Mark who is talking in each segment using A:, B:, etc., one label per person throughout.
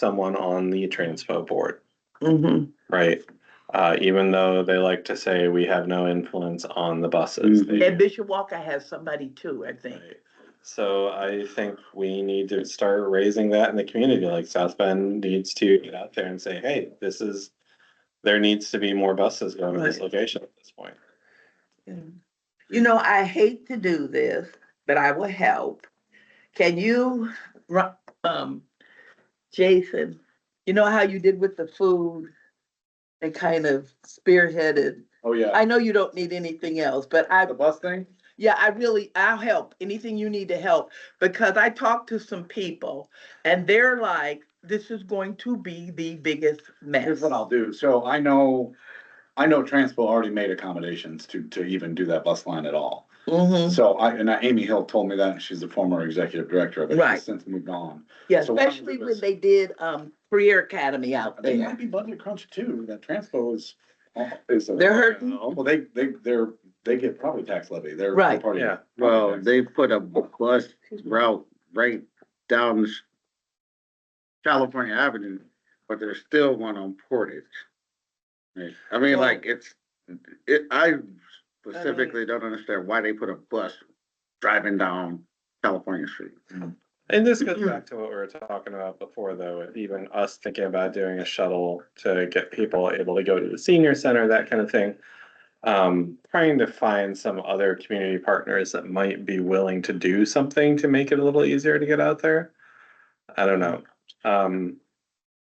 A: someone on the transpo board,
B: Mm-hmm.
C: Mhm.
A: right? Uh, even though they like to say we have no influence on the buses.
B: Mhm.
A: They-
C: And Bishop Walker has somebody too, I think.
A: Right. So I think we need to start raising that in the community, like South Bend needs to get out there and say, hey, this is. There needs to be more buses going to this
C: Right.
A: location at this point.
C: You know, I hate to do this, but I will help. Can you, ru- um, Jason, you know how you did with the food? And kind of spearheaded.
B: Oh, yeah.
C: I know you don't need anything else, but I
B: The bus thing?
C: Yeah, I really, I'll help, anything you need to help, because I talked to some people and they're like, this is going to be the biggest mess.
B: Here's what I'll do. So I know, I know Transpo already made accommodations to, to even do that bus line at all.
C: Mhm.
B: So I, and Amy Hill told me that. She's the former executive director of it. She's
C: Right.
B: Since moved on.
C: yeah,
B: So what I'll
C: especially
B: do
C: when
B: is-
C: they did, um, career academy out
B: They
C: there.
B: might be budget crunch too. That Transpo is, uh, is. a-
C: They're hurting.
B: Well, they, they, they're, they get probably tax levy. They're.
C: Right.
B: they're part of-
A: Yeah.
D: Well, they put a bus route right down s- California Avenue, but there's still one on Portage. Right. I mean,
C: Well-
D: like, it's, it, I specifically don't understand why they put a bus driving down California Street.
A: And this goes back to what we were talking about before, though, with even us thinking about doing a shuttle to get people able to go to the senior center, that kind of thing. Um, trying to find some other community partners that might be willing to do something to make it a little easier to get out there. I don't know. Um,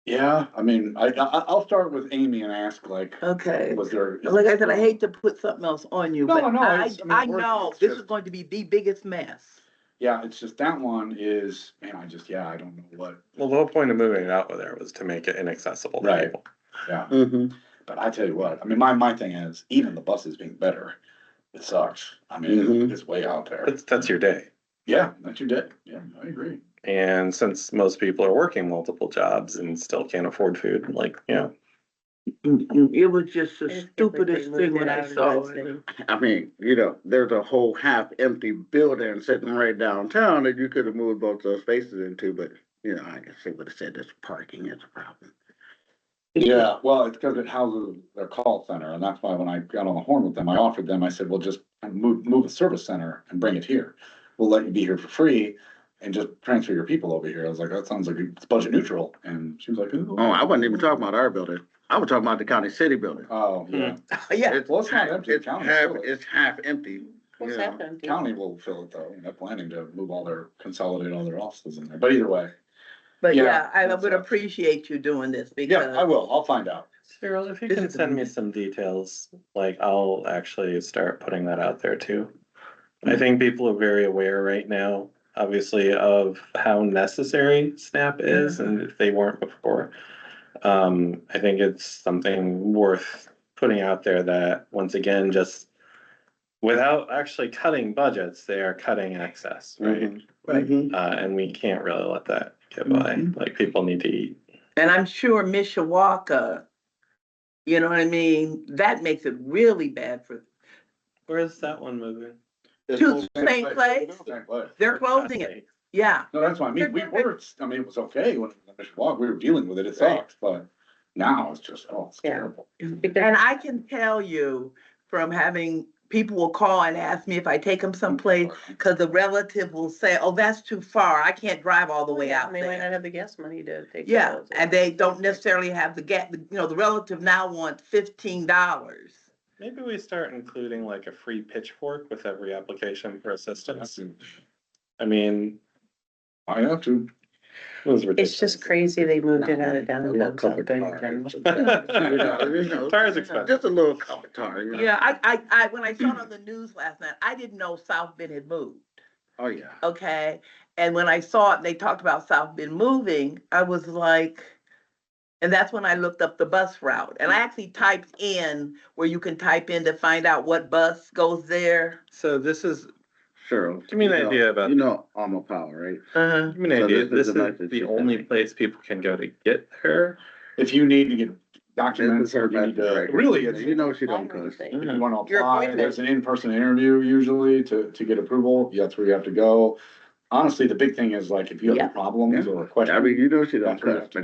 B: Yeah, I mean, I, I, I'll start with Amy and ask like,
C: Okay,
B: was there?
C: like I said, I hate to put something else on you,
B: No,
C: but
B: no,
C: I,
B: it's- I mean,
C: I
B: we're-
C: know
B: it's
C: this
B: just-
C: is going to be the biggest mess.
B: Yeah, it's just that one is, man, I just, yeah, I don't know what,
A: well, the whole point of moving it out there was to make it inaccessible to
B: Right.
A: people.
B: yeah.
D: Mm-hmm.
B: But I tell you what, I mean, my, my thing is, even the buses being better, it sucks. I mean,
D: Mhm.
B: it's way out there.
A: That's, that's your day.
B: Yeah, that you did. Yeah, I agree.
A: And since most people are working multiple jobs and still can't afford food, like, you know,
C: It was just the
E: If- if we could
C: stupidest
E: move
C: thing when
E: that
C: I
E: out of
C: saw
E: that
C: it.
D: I mean, you know, there's a whole half-empty building sitting right downtown that you could have moved both those spaces into, but, you know, I guess they would have said this parking is a problem.
B: Yeah, well, it's because it houses their call center, and that's why when I got on the horn with them, I offered them, I said, well, just move, move a service center and bring it here. We'll let you be here for free and just transfer your people over here. I was like, that sounds like it's budget neutral, and she was like, ooh.
D: Oh, I wasn't even talking about our building. I was talking about the county city building.
B: Oh, yeah.
C: Yeah,
B: Well, it's not empty.
D: It's
B: County
D: half,
B: still is.
D: it's half empty.
E: What's
D: you know.
E: happened?
B: County will fill it though, and they're planning to move all their, consolidate all their offices in there, but either way,
C: but
B: Yeah,
C: yeah, I
B: that's
C: would
B: a-
C: appreciate you doing this
B: yeah, I
C: because,
B: will, I'll find out.
A: Cyril, if you
C: This
A: can
C: is a
A: send me some details, like I'll actually start putting that out there too. I think people are very aware right now, obviously, of how necessary SNAP is and if they weren't before. Um, I think it's something worth putting out there that, once again, just without actually cutting budgets, they are cutting access, right?
B: Mm-hmm.
C: Right.
D: Mhm.
E: Mm-hmm.
A: Uh, and we can't really let that get by, like people need to eat.
C: and I'm sure Mishawaka, you know what I mean? That makes it really bad for
A: Where's that one moving?
C: To the same place?
B: Same place.
C: They're closing it, yeah.
B: No, that's what I mean, we were, I mean, it was okay when, it was walk, we were dealing with it, it sucked, but now it's just, oh, it's
E: Yeah.
B: terrible.
C: And I can tell you from having, people will call and ask me if I take them someplace, because the relative will say, oh, that's too far. I can't drive all the way out
E: They might
C: there.
E: not have the gas money to take.
C: Yeah,
E: those.
C: and they don't necessarily have the gap, you know, the relative now wants fifteen dollars.
A: Maybe we start including like a free pitchfork with every application for assistance. I mean,
B: I have to.
A: it was
E: It's
A: ridiculous.
E: just crazy they moved it out of downtown.
D: Covered car.
E: South
D: You know, you know,
A: Tires expensive.
D: Just a little cup of tar, you know.
C: Yeah, I, I, I, when I saw it on the news last night, I didn't know South Bend had moved,
D: Oh, yeah.
C: okay? And when I saw it, and they talked about South Bend moving, I was like, and that's when I looked up the bus route. And I actually typed in where you can type in to find out what bus goes there.
A: So this is,
D: Sure.
A: Give me an
D: You know-
A: idea about-
D: You know, Alma Power, right?
C: Uh-huh.
A: give me an
D: So
A: idea,
D: this
A: this
D: is
A: is
D: the message
A: the
D: you're
A: only
D: sending.
A: place people can go to get there.
B: If you need to get
D: This
B: documents,
D: is her
B: or you need
D: message,
B: to,
D: right?
B: really, it's,
D: You know she don't
E: Why would
D: cuss.
E: they?
B: If you wanna
E: Your
B: apply,
E: appointment.
B: there's an in-person interview usually to, to get approval, that's where you have to go. Honestly, the big thing is like, if you
C: Yeah.
B: have problems or
D: I
B: questions,
D: mean, you know she don't
B: That's right.
D: cuss, but